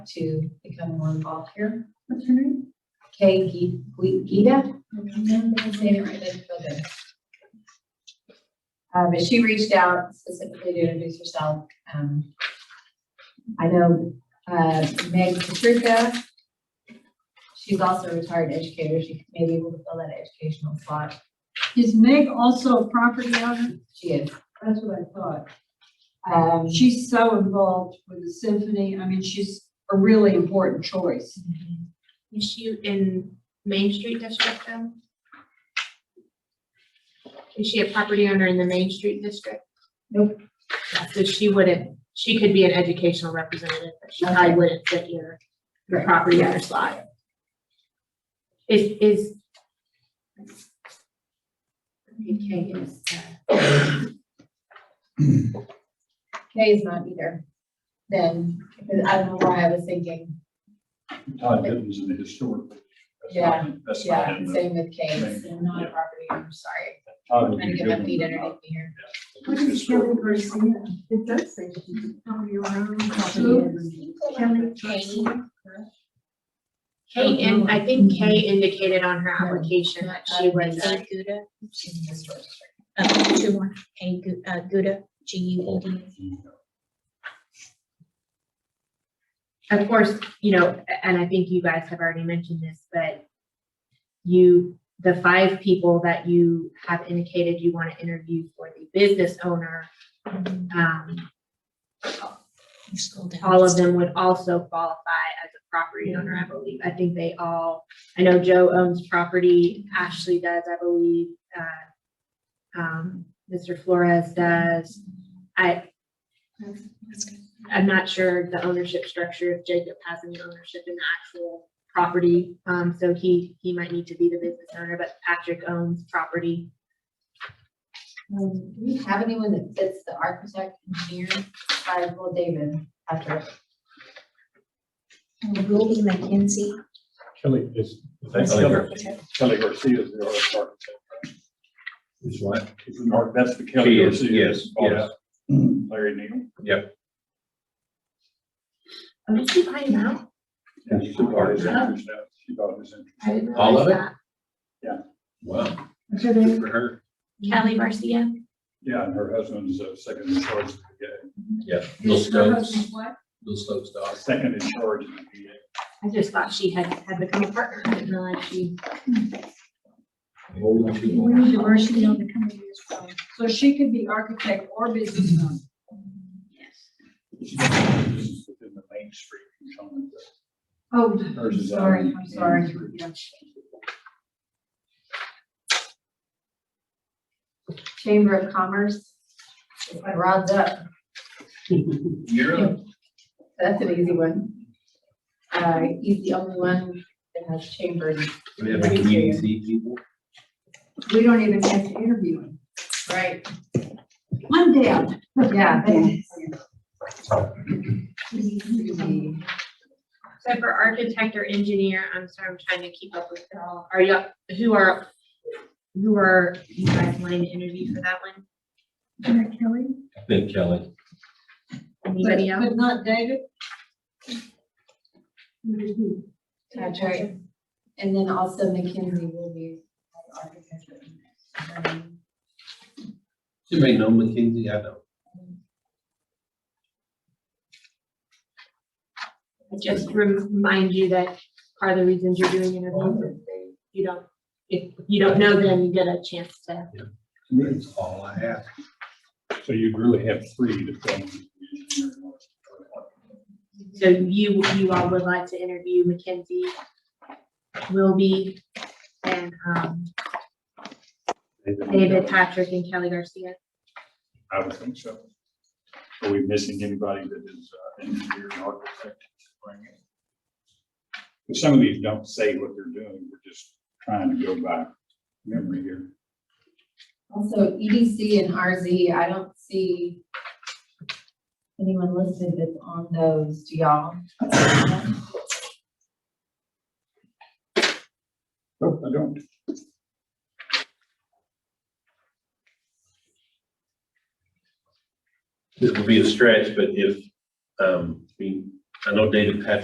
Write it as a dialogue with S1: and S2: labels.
S1: to become more involved here.
S2: What's her name?
S1: Kay Gee- Gee- Gita,
S2: I don't remember her
S1: saying it
S2: name.
S1: right, that's so good. Uh, but she reached out specifically to introduce herself. Um, I know, uh, Meg Patrica. She's also a retired educator. She may be able to fill that educational slot.
S2: Is Meg also a property owner?
S1: She is.
S2: That's what I thought.
S1: Um,
S2: She's so involved with the symphony. I mean, she's a really important choice.
S3: Is she in Main Street District though? Is she a property owner in the Main Street District?
S1: Nope.
S3: So she wouldn't, she could be an educational representative, but she probably
S1: Okay.
S3: wouldn't fit your, your
S1: Right.
S3: property owner slot. Is, is. Okay, is, uh,
S1: Kay is not either. Then, because I don't know why I was thinking,
S4: Todd Gittens in the historic. That's
S1: Yeah,
S4: not- That's not
S1: yeah,
S4: him, but
S1: same with Kay,
S4: Right.
S1: and not a
S4: Yeah.
S1: property, I'm sorry.
S4: Todd
S1: I'm
S4: would
S1: trying
S4: be
S1: to get my
S4: Gittens,
S1: feet
S4: but
S1: underneath me here.
S4: not historic.
S2: Garcia? It does say she's your own Kelly Garcia.
S3: Kay, and I think Kay indicated on her application that she was a
S5: Kay Guda,
S1: She's in the historic district.
S5: uh, two more, Kay Gu- uh, Guda, G U E D.
S3: of course, you know, a- and I think you guys have already mentioned this, but you, the five people that you have indicated you want to interview for the business owner, um,
S5: You scroll down.
S3: all of them would also qualify as a property owner, I believe. I think they all, I know Joe owns property, Ashley does, I believe, uh, um, Mr. Flores does. I,
S5: That's good.
S3: I'm not sure the ownership structure, if Jacob has any ownership in the actual property. Um, so he, he might need to be the business owner, but Patrick owns property.
S1: Um, Do we have anyone that fits the architect, engineer, by Will David after?
S5: And Ruby McKenzie.
S4: Kelly is.
S5: is
S4: Kelly
S5: the
S4: Gar-
S5: architect.
S4: Kelly Garcia is the artist architect.
S6: Is what?
S4: Is the mark, that's the Kelly
S6: She is,
S4: Garcia.
S6: yes,
S4: Oh,
S6: yes.
S4: yeah. Larry Neal.
S3: Oh, did you find out?
S4: Yeah, she bought his interest out. She bought his interest.
S3: I didn't
S6: All of
S3: realize
S6: Wow,
S3: that.
S6: good for her.
S3: Kelly Garcia?
S4: Yeah, and her husband's uh, second in charge, of the VA.
S6: Yeah, Bill
S2: Is her
S6: Stokes,
S2: husband what?
S6: Bill Stokes' dog.
S4: Uh, second in charge. of the VA.
S3: I just thought she had, had become a partner. I didn't realize she.
S6: Hold on to
S2: We
S6: it.
S2: need diversity on the committee as well. So she could be architect or business owner.
S4: She's Within the Main Street. component.
S2: Oh,
S4: Hers is on-
S2: sorry, I'm sorry. Yeah.
S1: Chamber of Commerce, Rod's up,
S6: You're up.
S1: that's an easy one. Uh, he's the only one that has chamber,
S6: We have a community people.
S2: We don't even have to interview him.
S1: right?
S2: One down.
S1: Yeah.
S3: So for architect or engineer, I'm sorry, I'm trying to keep up with it all. Are you, who are, who are you guys wanting to interview for that one?
S2: Kelly?
S6: I think Kelly.
S3: Anybody
S2: But-
S3: else?
S2: But not David?
S1: That's right. And then also McKinsey will be as architect. Um,
S6: You may know McKinsey, I know.
S3: just remind you that part of the reasons you're doing interviews is they- you don't, if you don't know them, you get a chance to.
S6: That's all I have.
S4: So you'd really have three to fill. in the engineering architect.
S3: So you, you all would like to interview Mackenzie, Wilby, and um, David, Patrick, and Kelly Garcia.
S4: I would think so. Are we missing anybody that is uh, engineer and architect? But some of these don't say what they're doing, we're just trying to go by memory here.
S1: Also, EDC and RZ, I don't see anyone listed that's on those, do y'all?
S4: Nope, I don't.
S6: This will be a stretch, but if, um, we, I know David Patrick